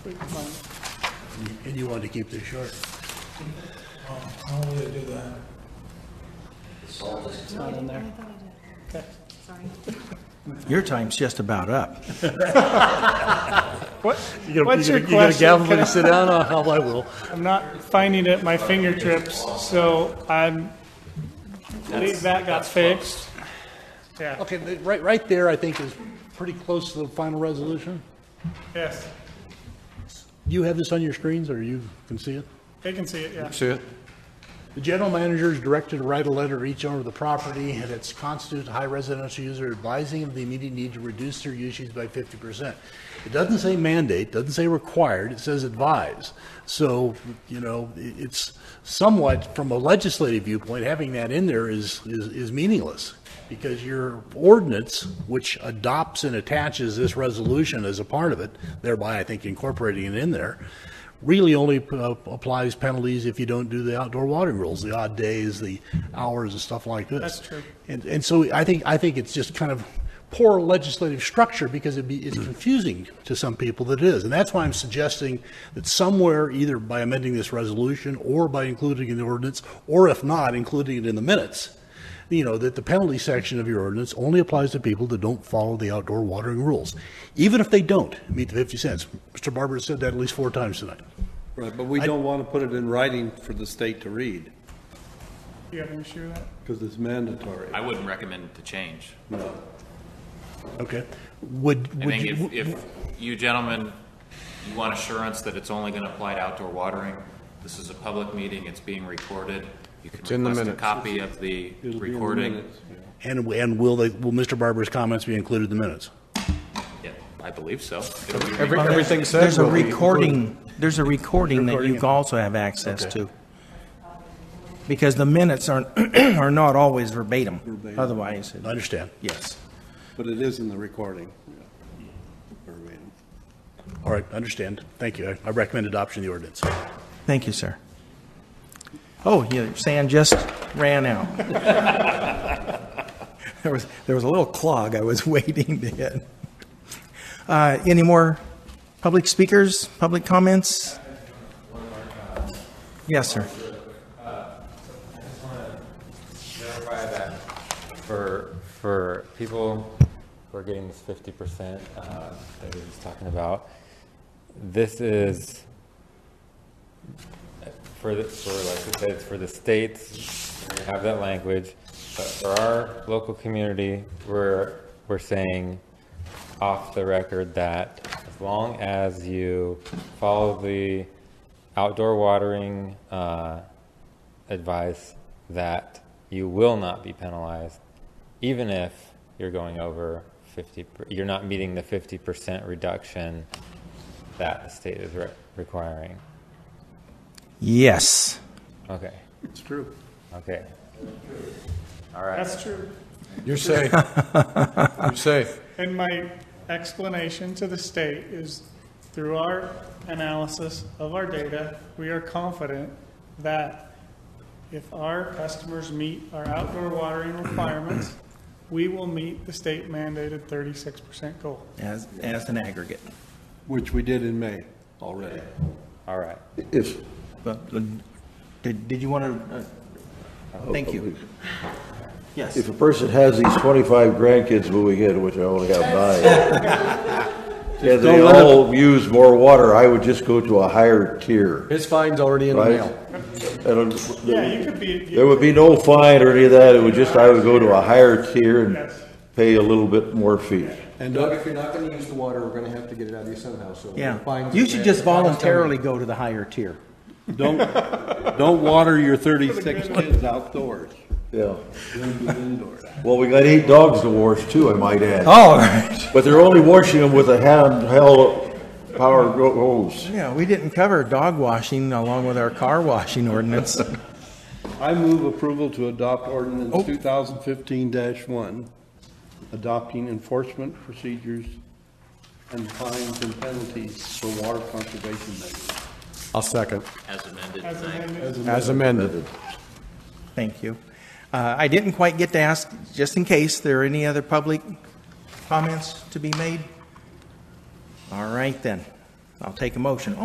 And you wanted to keep this short. How would I do that? It's not in there. Sorry. Your time's just about up. What, You gonna- what's you your gonna- You gonna gavel me question? to sit down? Oh, hell, I will. I'm not finding it at my fingertips, so I'm, believe that got fixed. Yeah, Okay, the- right, right there, I think, is pretty close to the final resolution. yes, You have this on your screens, or you can see it? they can see it, yeah. See it? The general manager is directed to write a letter to each owner of the property and its constitute high residential user advising of the immediate need to reduce their usage by fifty percent. It doesn't say mandate, doesn't say required, it says advise. So, you know, i- it's somewhat, from a legislative viewpoint, having that in there is, is, is meaningless. Because your ordinance, which adopts and attaches this resolution as a part of it, thereby I think incorporating it in there, really only uh, applies penalties if you don't do the outdoor watering rules, the odd days, the hours and stuff like this. That's true. And, and so I think, I think it's just kind of poor legislative structure because it'd be, it's confusing to some people that it is. And that's why I'm suggesting that somewhere, either by amending this resolution or by including it in the ordinance, or if not, including it in the minutes, you know, that the penalty section of your ordinance only applies to people that don't follow the outdoor watering rules, even if they don't meet the 50 cents. Mr. Barber said that at least four times tonight. Right, but we don't want to put it in writing for the state to read, You have an issue with that? because it's mandatory. I wouldn't recommend to change. Okay? Would, I would think you? if, if you gentlemen, you want assurance that it's only gonna apply to outdoor watering, this is a public meeting, it's being recorded. You can in the request a minutes. copy of the It'll be in the recording. minutes. And, and will they, will Mr. Barber's comments be included in the minutes? Yeah, I believe so. It'll be recorded. Everything said. There's a recording, there's a recording that you Recording. also have access to. Because the minutes aren't, are not always verbatim. Otherwise, it- I understand. yes. But it is in the recording. yeah. Or reading. All right, understand. Thank you. I- I recommend adoption of the ordinance. Thank you, sir. Oh, yeah, sand just ran out. There was, there was a little clog I was waiting to hit. Uh, Any more public speakers, public comments? Yes, sir. clarify that for, for people who are getting this fifty percent, uh, that we were just talking about, this is for the, for like I said, it's for the states, we have that language, but for our local community, we're, we're saying off the record that as long as you follow the outdoor watering, uh, advice that you will not be penalized, even if you're going over 50, per- you're not meeting the 50% reduction that the state is re- requiring. Yes. Okay, It's true. okay. That's true. You're safe. You're safe. And my explanation to the state is through our analysis of our data, we are confident that if our customers meet our outdoor watering requirements, we will meet the state mandated thirty-six percent goal. As, as an aggregate. Which we did in May already. All right. If, But, uh, Did, did you want to, thank you. Yes. If a person has these 25 grandkids moving in, which I only have nine, and they let 'em- all use more water, I would just go to a higher tier, His fine's already in the right? mail. And Yeah, you it- could be, There would be no fine or any of that, it would just, I would go to a higher tier and Yes. pay a little bit more fee. and Doug, if you're not gonna use the water, we're gonna have to get it out of you somehow, so. Yeah. fine's You in should there. just Fine's coming. voluntarily go to the higher tier. don't, don't water your 36 kids outdoors. Yeah. Leave them indoors. Well, we got eight dogs to wash too, I might add. All right. But they're only washing them with a handheld power gro- hose. Yeah, we didn't cover dog washing along with our car washing ordinance. I move approval to adopt ordinance Oh. 2015-1, adopting enforcement procedures and fines and penalties for water conservation measures. I'll second, As amended as tonight. amended. as amended. Thank you. Uh, I didn't quite get to ask, just in case, there are any other public comments to be made? All right then. I'll take a motion.